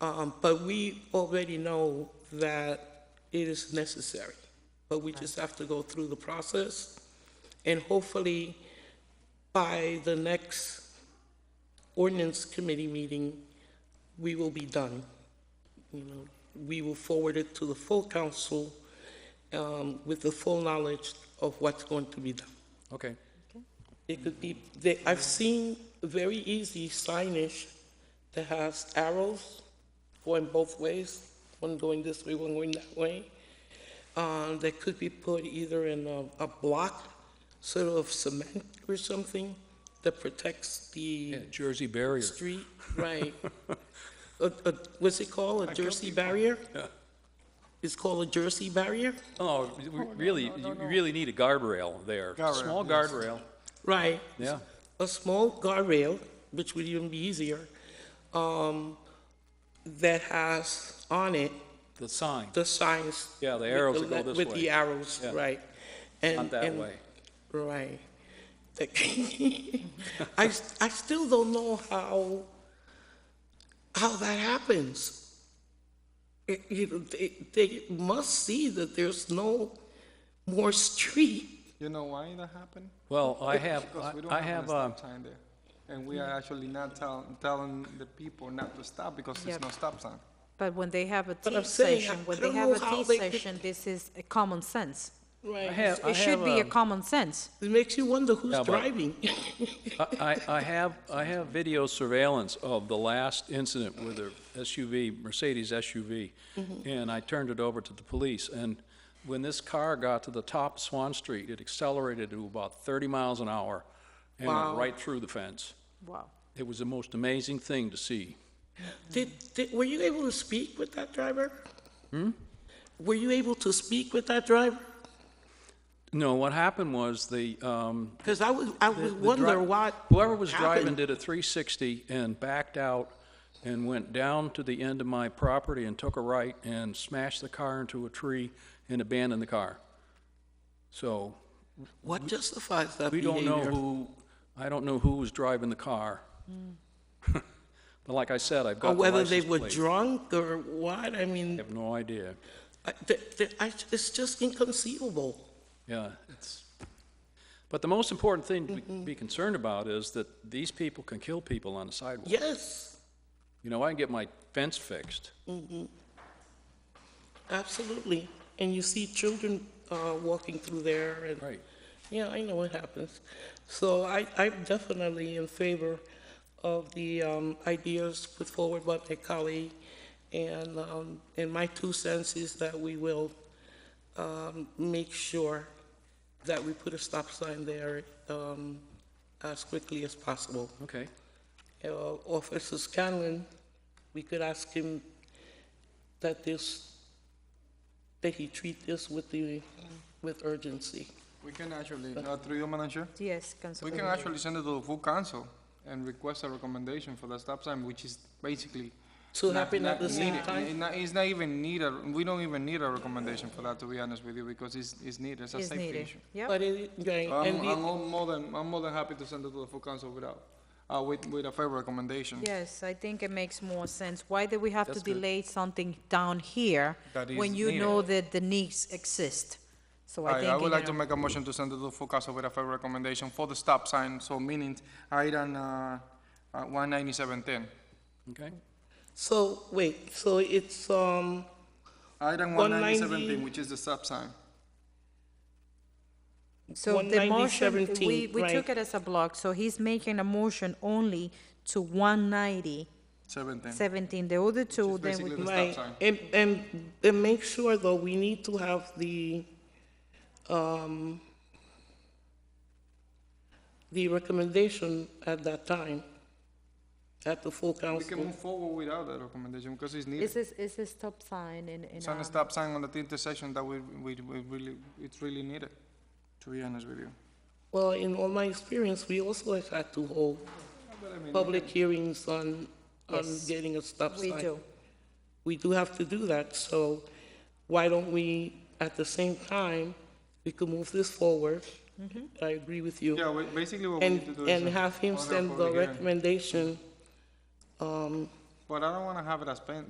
Um, But we already know that it is necessary, but we just have to go through the process. And hopefully, by the next ordinance committee meeting, we will be done. You know, we will forward it to the full council um, with the full knowledge of what's going to be done. Okay. It could be, they, I've seen very easy signage that has arrows going both ways, one going this way, one going that way. Uh, that could be put either in a, a block, sort of cement or something, that protects the Yeah, Jersey barrier. street, right. A- a- What's it called, a jersey barrier? Yeah. It's called a jersey barrier? Oh, we- really, you really need a guardrail there. Small guardrail, Right. yeah. a small guardrail, which would even be easier, um, that has on it The sign, the signs. Yeah, the with arrows that go le- this With the way. arrows, Yeah. right. And- not that and- way. Right. The- I, s- I still don't know how, how that happens. It- You know, they, they must see that there's no more street. You know why that happened? Well, I have, Because we don't I have have, enough uh, stop sign there. And we are actually not tell, telling the people not to stop because there's Yep. no stop sign. But when they have a But I'm tea saying, I- session, I when they don't have know a how tea they could- session, this is a common sense. Right. I have, I It should have, be a um, common sense. It makes you wonder who's Yeah, but- driving. I, I I have, I have video surveillance of the last incident with a SUV, Mercedes SUV, Mm-hmm. and I turned it over to the police, and when this car got to the top of Swan Street, it accelerated to about 30 miles an hour and went right through the fence. Wow. It was the most amazing thing to see. Did, did, were you able to speak with that driver? Hmm? Were you able to speak with that driver? No, what happened was the, um, Because I would, I The- would the wonder dri- what. Whoever was driving happened. did a 360 and backed out and went down to the end of my property and took a right and smashed the car into a tree and abandoned the car. So What justifies that we don't know behavior? who, I don't know who was driving the car. But like I said, I've Hmm. Or got the whether they license were plate. drunk or what, I I mean, have no idea. I- th- th- I- it's just inconceivable. Yeah, it's, but the most important thing to be- be concerned about is that these people can kill people on the sidewalk. Yes, You know, I can get my fence fixed. absolutely. And you see children uh, walking through there and. Right. Yeah, I know what happens. So I, I'm definitely in favor of the um, ideas put forward by my colleague, and, um, and my two cents is that we will um, make sure that we put a stop sign there um, as quickly as possible. Okay. Uh, Officer Scanlon, we could ask him that this, that he treat this with the, with urgency. We can actually, uh, through your manager, Yes, we Councilman. can actually send it to the full council and request a recommendation for the stop sign, which is basically. To not- happen at not the same needed. time? It not- It's not even needed, we don't even need a recommendation for that, to be honest with you, because it's, it's needed, it's a Is safety needed. issue. Yep, But it, right, I'm, and the- I'm all more than, I'm more than happy to send it to the full council without, uh, with, with a favorable recommendation. yes, I think it makes more sense. Why do we have to That's good. delay something down here That is when you know needed. that the needs exist? So I Aye, think. I would you like to know- make a motion to send it to full council with a favorable recommendation for the stop sign, so meaning item, uh, one ninety-seven ten. Okay. so, wait, so it's, um, Item one 190. ninety-seven ten, which is the stop sign. So the motion, 190-17, we, we took right. it as a block, so he's making a motion only to one ninety Seventeen. seventeen, the other two, Which is then we. basically the right, stop sign. and, and, and make sure though, we need to have the, um, the recommendation at that time, at the full We can council. move forward without that recommendation because it's Is needed. this, is this stop sign in, in? It's on um, a stop sign on the intersection that we, we, we really, it's really needed, to be honest with you. Well, in all my experience, we also have had to hold But I mean, public hearings on, on Yes, getting a stop We sign. do. we do have to do that, so why don't we, at the same time, we could move this forward? I agree with you. Yeah, we- basically what we And, need to do is. and uh, have him order a send the public hearing. recommendation. But I don't wanna have it as pen,